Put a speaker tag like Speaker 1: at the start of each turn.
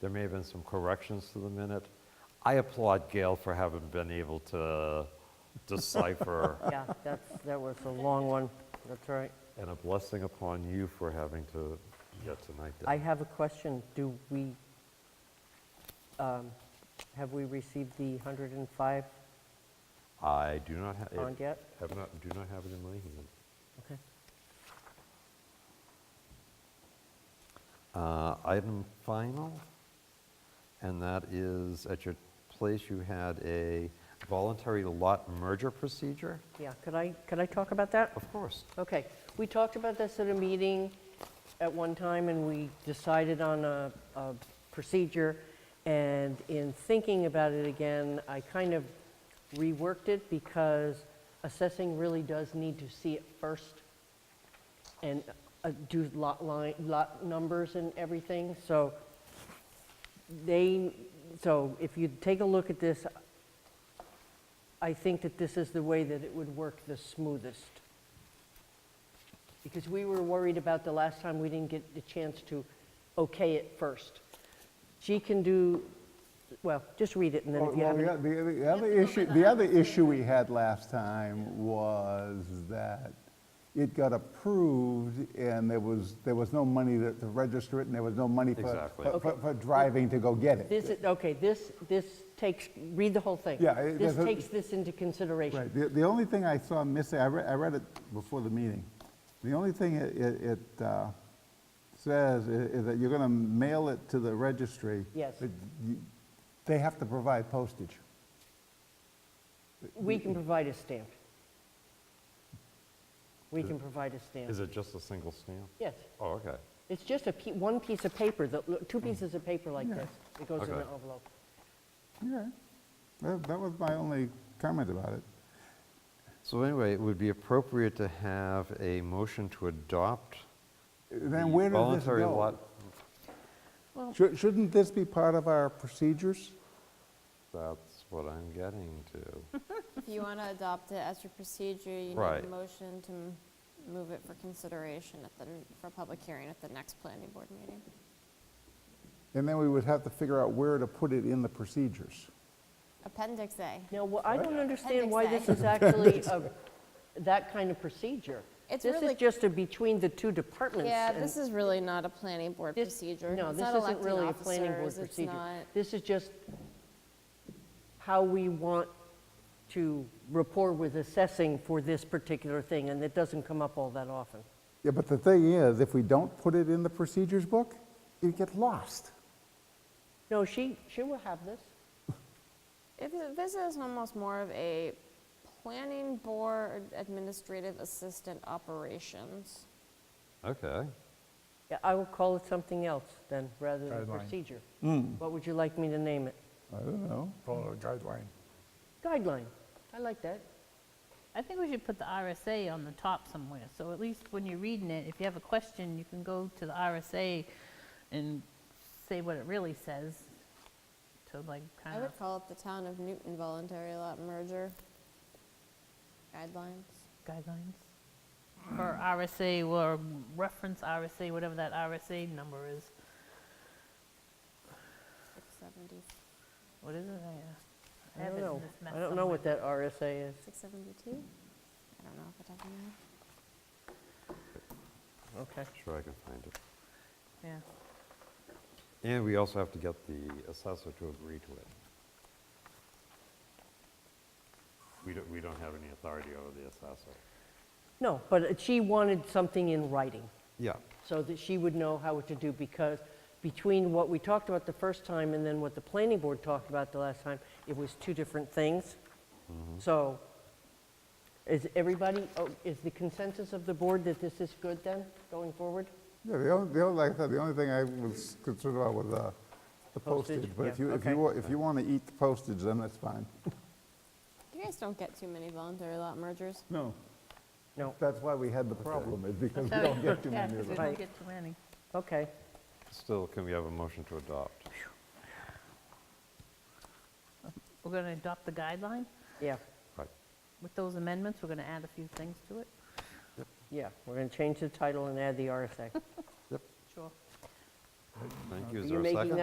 Speaker 1: There may have been some corrections to the minute. I applaud Gail for having been able to decipher,
Speaker 2: Yeah, that's, that was a long one, that's right.
Speaker 1: and a blessing upon you for having to get tonight.
Speaker 2: I have a question, do we, um, have we received the 105?
Speaker 1: I do not have.
Speaker 2: Aren't yet?
Speaker 1: Have not, do not have it in my hand.
Speaker 2: Okay.
Speaker 1: Uh, Item final, and that is, at your place, you had a voluntary lot merger procedure?
Speaker 2: Yeah, could I, could I talk about that?
Speaker 1: Of course.
Speaker 2: Okay, we talked about this at a meeting at one time, and we decided on a, a procedure, and in thinking about it again, I kind of reworked it, because assessing really does need to see it first, and uh, do lot line, lot numbers and everything, so they, so if you take a look at this, I think that this is the way that it would work the smoothest because we were worried about the last time we didn't get the chance to okay it first. She can do, well, just read it and then
Speaker 3: Well,
Speaker 2: if you
Speaker 3: well,
Speaker 2: have
Speaker 3: the
Speaker 2: any,
Speaker 3: oth- The the other issue, the other issue we had last time was that it got approved and there was, there was no money to to register it and there was no money for-
Speaker 1: Exactly.
Speaker 3: for, for- for driving to go get it.
Speaker 2: this, is- okay, this, this takes, read the whole thing.
Speaker 3: Yeah, it-
Speaker 2: This
Speaker 3: there's a-
Speaker 2: takes this into consideration.
Speaker 3: Right, the, the only thing I saw missing, I read, I read it before the meeting. The only thing it, it- it uh, says i- is that you're gonna mail it to the registry.
Speaker 2: Yes.
Speaker 3: but you- They have to provide postage.
Speaker 2: We
Speaker 1: Mm-hmm.
Speaker 2: can provide a stamp. We can provide a stamp.
Speaker 1: Is it just a single stamp?
Speaker 2: Yes,
Speaker 1: Oh, okay.
Speaker 2: it's just a, pe- one piece of paper, that look, two pieces of paper like
Speaker 3: Yeah.
Speaker 2: this. It goes
Speaker 1: Mm-hmm.
Speaker 2: in
Speaker 1: Okay.
Speaker 2: an envelope.
Speaker 3: Yeah, that, that was my only comment about it.
Speaker 1: So anyway, it would be appropriate to have a motion to adopt the
Speaker 3: Then where did this
Speaker 1: voluntary lot.
Speaker 3: go? Shou- Shouldn't this be part of our procedures?
Speaker 1: That's what I'm getting to.
Speaker 4: If you want to adopt it as your procedure, you need
Speaker 1: Right.
Speaker 4: a motion to m- move it for consideration at the, for a public hearing at the next planning board meeting.
Speaker 3: And then we would have to figure out where to put it in the procedures.
Speaker 4: Appendix A.
Speaker 2: Now, wha- I don't understand
Speaker 4: Appendix
Speaker 2: why this
Speaker 4: A.
Speaker 2: is actually a- that kind of procedure.
Speaker 4: It's
Speaker 2: This
Speaker 4: really-
Speaker 2: is just a between the two departments.
Speaker 4: Yeah,
Speaker 2: and
Speaker 4: this is really not a planning board
Speaker 2: this-
Speaker 4: procedure.
Speaker 2: No,
Speaker 4: It's
Speaker 2: this
Speaker 4: not
Speaker 2: isn't
Speaker 4: electing
Speaker 2: really a planning board
Speaker 4: officers, it's
Speaker 2: procedure.
Speaker 4: not-
Speaker 2: This is just how we want to rapport with assessing for this particular thing, and it doesn't come up all that often.
Speaker 3: Yeah, but the thing is, if we don't put it in the procedures book, it gets lost.
Speaker 2: No, she, she will have this.
Speaker 4: It- This is almost more of a planning board administrative assistant operations.
Speaker 1: Okay.
Speaker 2: Yeah, I will call it something else then, rather than
Speaker 5: Guideline.
Speaker 2: procedure. What would you like me to name it?
Speaker 3: I don't know.
Speaker 5: follow the guideline.
Speaker 2: Guideline. I like that.
Speaker 6: I think we should put the RSA on the top somewhere, so at least when you're reading it, if you have a question, you can go to the RSA and say what it really says, to like,
Speaker 4: I
Speaker 6: kind of,
Speaker 4: would call it the town of Newton voluntary lot merger guidelines.
Speaker 6: guidelines. Or RSA, or reference RSA, whatever that RSA number is.
Speaker 4: 670,
Speaker 6: What is it? I- uh, I
Speaker 2: I
Speaker 6: have
Speaker 2: don't
Speaker 6: it in
Speaker 2: know.
Speaker 6: this mess
Speaker 2: I don't know what
Speaker 6: somewhere.
Speaker 2: that RSA is.
Speaker 4: 672? I don't know if I have that.
Speaker 2: Okay.
Speaker 1: Sure I can find it.
Speaker 6: Yeah.
Speaker 1: And we also have to get the assessor to agree to it. We don't, we don't have any authority over the assessor.
Speaker 2: No, but she wanted something in writing
Speaker 1: Yeah.
Speaker 2: so that she would know how to do because between what we talked about the first time and then what the planning board talked about the last time, it was two different things. So is everybody, oh, is the consensus of the board that this is good then, going forward?
Speaker 3: Yeah, the only, the only, like I said, the only thing I was concerned about was uh, the
Speaker 2: Postage,
Speaker 3: postage. But if
Speaker 2: yeah,
Speaker 3: you, if
Speaker 2: okay.
Speaker 3: you, wa- if you want to eat the postage, then that's fine.
Speaker 4: You guys don't get too many voluntary lot mergers.
Speaker 3: No.
Speaker 2: No,
Speaker 3: That's why we had the problem, is because we
Speaker 6: So-
Speaker 3: don't get too
Speaker 6: yeah,
Speaker 3: many
Speaker 6: 'cause
Speaker 3: of them.
Speaker 6: we don't
Speaker 2: Right.
Speaker 6: get too many.
Speaker 2: okay.
Speaker 1: Still, can we have a motion to adopt?
Speaker 6: We're going to adopt the guideline.
Speaker 2: Yeah,
Speaker 1: Right.
Speaker 6: With those amendments, we're going to add a few things to it.
Speaker 2: yeah. We're going to change the title and add the RSA.
Speaker 6: Sure.
Speaker 1: Thank you.
Speaker 2: Are
Speaker 1: Is
Speaker 2: you
Speaker 1: there a
Speaker 2: making
Speaker 1: second?